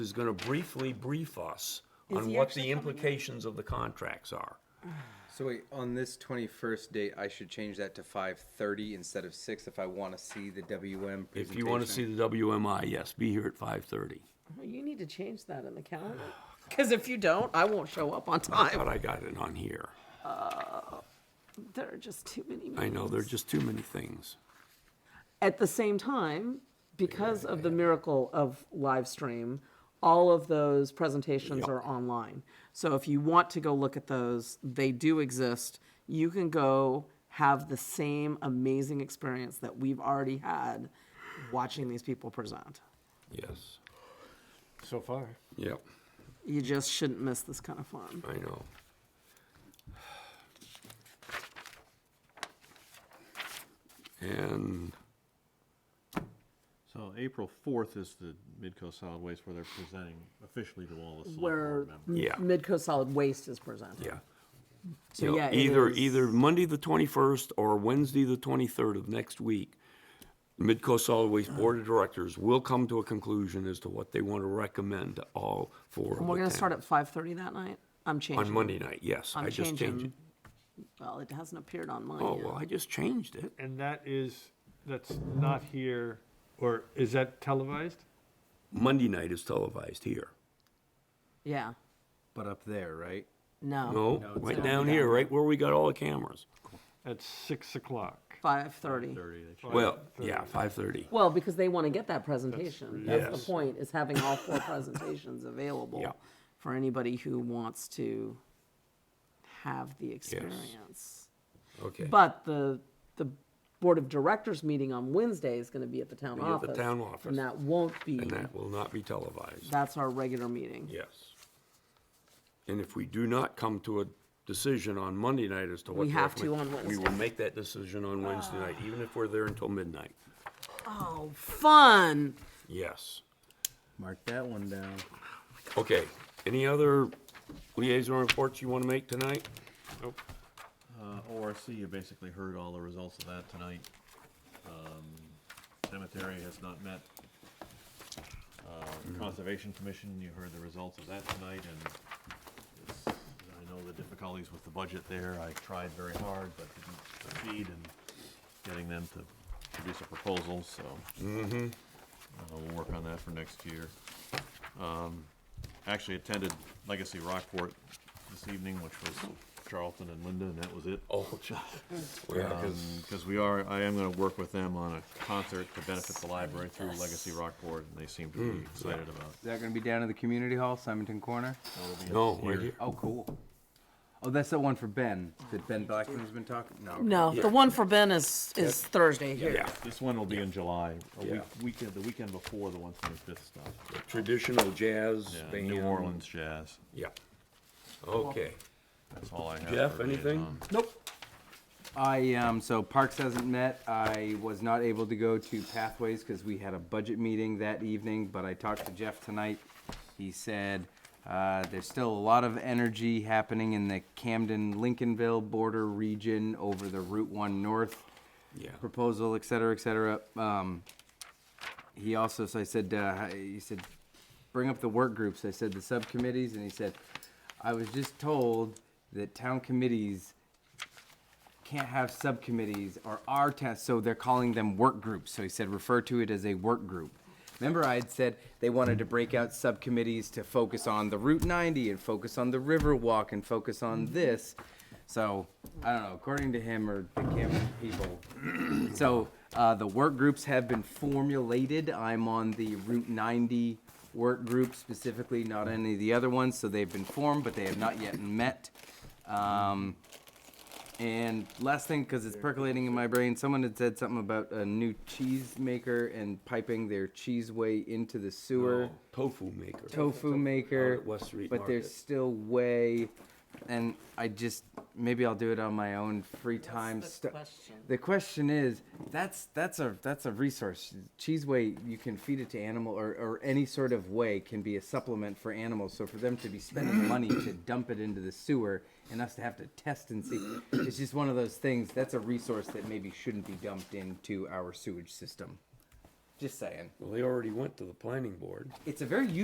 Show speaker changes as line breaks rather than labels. is gonna briefly brief us
Is
on
he
what
actually
the
coming in?
implications of the contracts are.
So wait, on this twenty-first date, I should change that to five thirty instead of six if I want to see the WM presentation.
If you wanna see the WMI, yes, be here at five thirty.
Well, you need to change that in the calendar. Because if you don't, I won't show up on time.
But I got it on here.
There are just too many.
I know, there are
meetings.
just too many things.
At the same time, because of the miracle of live stream, all of those presentations
Yep.
are online. So if you want to go look at those, they do exist. You can go have the same amazing experience that we've already had watching these people present.
Yes,
So far.
yep,
You just shouldn't miss this kind of fun.
I know. And
So April fourth is the Midco Solid Waste where they're presenting officially to all the select
Where
board members.
Yeah.
Midco Solid Waste is presented.
Yeah.
So,
You know,
yeah, it
either
is-
either Monday the twenty first or Wednesday the twenty third of next week, Midco Solid Waste Board of Directors will come to a conclusion as to what they want to recommend to all four.
And we're gonna start at five thirty that night? I'm changing.
on Monday night. Yes,
I'm
I just changed.
changing.
It.
Well, it hasn't appeared on
Oh
mine
well,
yet.
I just changed it.
And that is, that's not here, or is that televised?
Monday night is televised here.
Yeah,
But up there, right?
no,
No, right down here, right where we got all the cameras.
At six o'clock.
five thirty.
Thirty, they should-
Well, yeah, five thirty.
Well, because they wanna get that presentation. That's
Yes.
the point, is having all four presentations available
Yeah.
for anybody who wants to have the experience.
Okay.
But the, the Board of Directors meeting on Wednesday is gonna be at the town
Be at the
office.
town office.
And that won't be,
and that will not be televised.
that's our regular meeting.
Yes. And if we do not come to a decision on Monday night as to what.
We have to
recommend-
on
We will
Wednesday.
make that decision on Wednesday night, even if we're there until midnight.
Oh, fun!
Yes.
Mark that one down.
Okay. Any other liaison reports you want to make tonight?
Uh, ORC, you basically heard all the results of that tonight. Um, Cemetery has not met. Uh, Conservation Commission, you heard the results of that tonight, and it's, I know the difficulties with the budget there. I tried very hard, but didn't succeed in getting them to produce a proposal, so. Uh, We'll work on that for next year. Um, Actually attended Legacy Rockport this evening, which was Charlton and Linda, and that was it.
Oh,
Um, Because we are, I am gonna work with them on a concert to benefit the library through Legacy Rockport, and they seem to be excited about.
Is that going to be down in the community hall, Simonton Corner?
No, right here.
Oh, cool. Oh, that's that one for Ben. That Ben Blackman's been talking. No.
No, the one for Ben is, is Thursday here.
Yeah,
This one will be in July, a
Yeah.
week, weekend, the weekend before the one twenty-fifth stuff.
the traditional jazz
Yeah,
band.
New Orleans jazz,
Yeah. Okay.
that's all I have.
Jeff,
for
anything?
liaison.
Nope.
I um so Parks hasn't met. I was not able to go to Pathways because we had a budget meeting that evening, but I talked to Jeff tonight. He said uh, there's still a lot of energy happening in the Camden Lincolnville border region over the Route One North
Yeah.
proposal, et cetera, et cetera. Um, he also, so I said, uh, he said, bring up the work groups. I said the subcommittees, and he said, I was just told that town committees can't have subcommittees or our town, so they're calling them work groups. So he said, refer to it as a work group. Remember, I had said they wanted to break out subcommittees to focus on the Route 90 and focus on the Riverwalk and focus on this. So I don't know, according to him or the Camden people, so uh, the work groups have been formulated. I'm on the Route 90 work group specifically, not any of the other ones. So they've been formed, but they have not yet met. Um, and last thing, because it's percolating in my brain, someone had said something about a new cheese maker and piping their cheese way into the sewer
Tofu maker.
tofu maker,
Out at West Street
but
Market.
there's still way, and I just maybe I'll do it on my own free time. stu-
question?
The question is, that's that's a that's a resource. Cheese way you can feed it to animal or, or any sort of way can be a supplement for animals. So for them to be spending money to dump it into the sewer and us to have to test and see, it's just one of those things. That's a resource that maybe shouldn't be dumped into our sewage system. Just saying,
Well, they already went to the planning board.
it's a very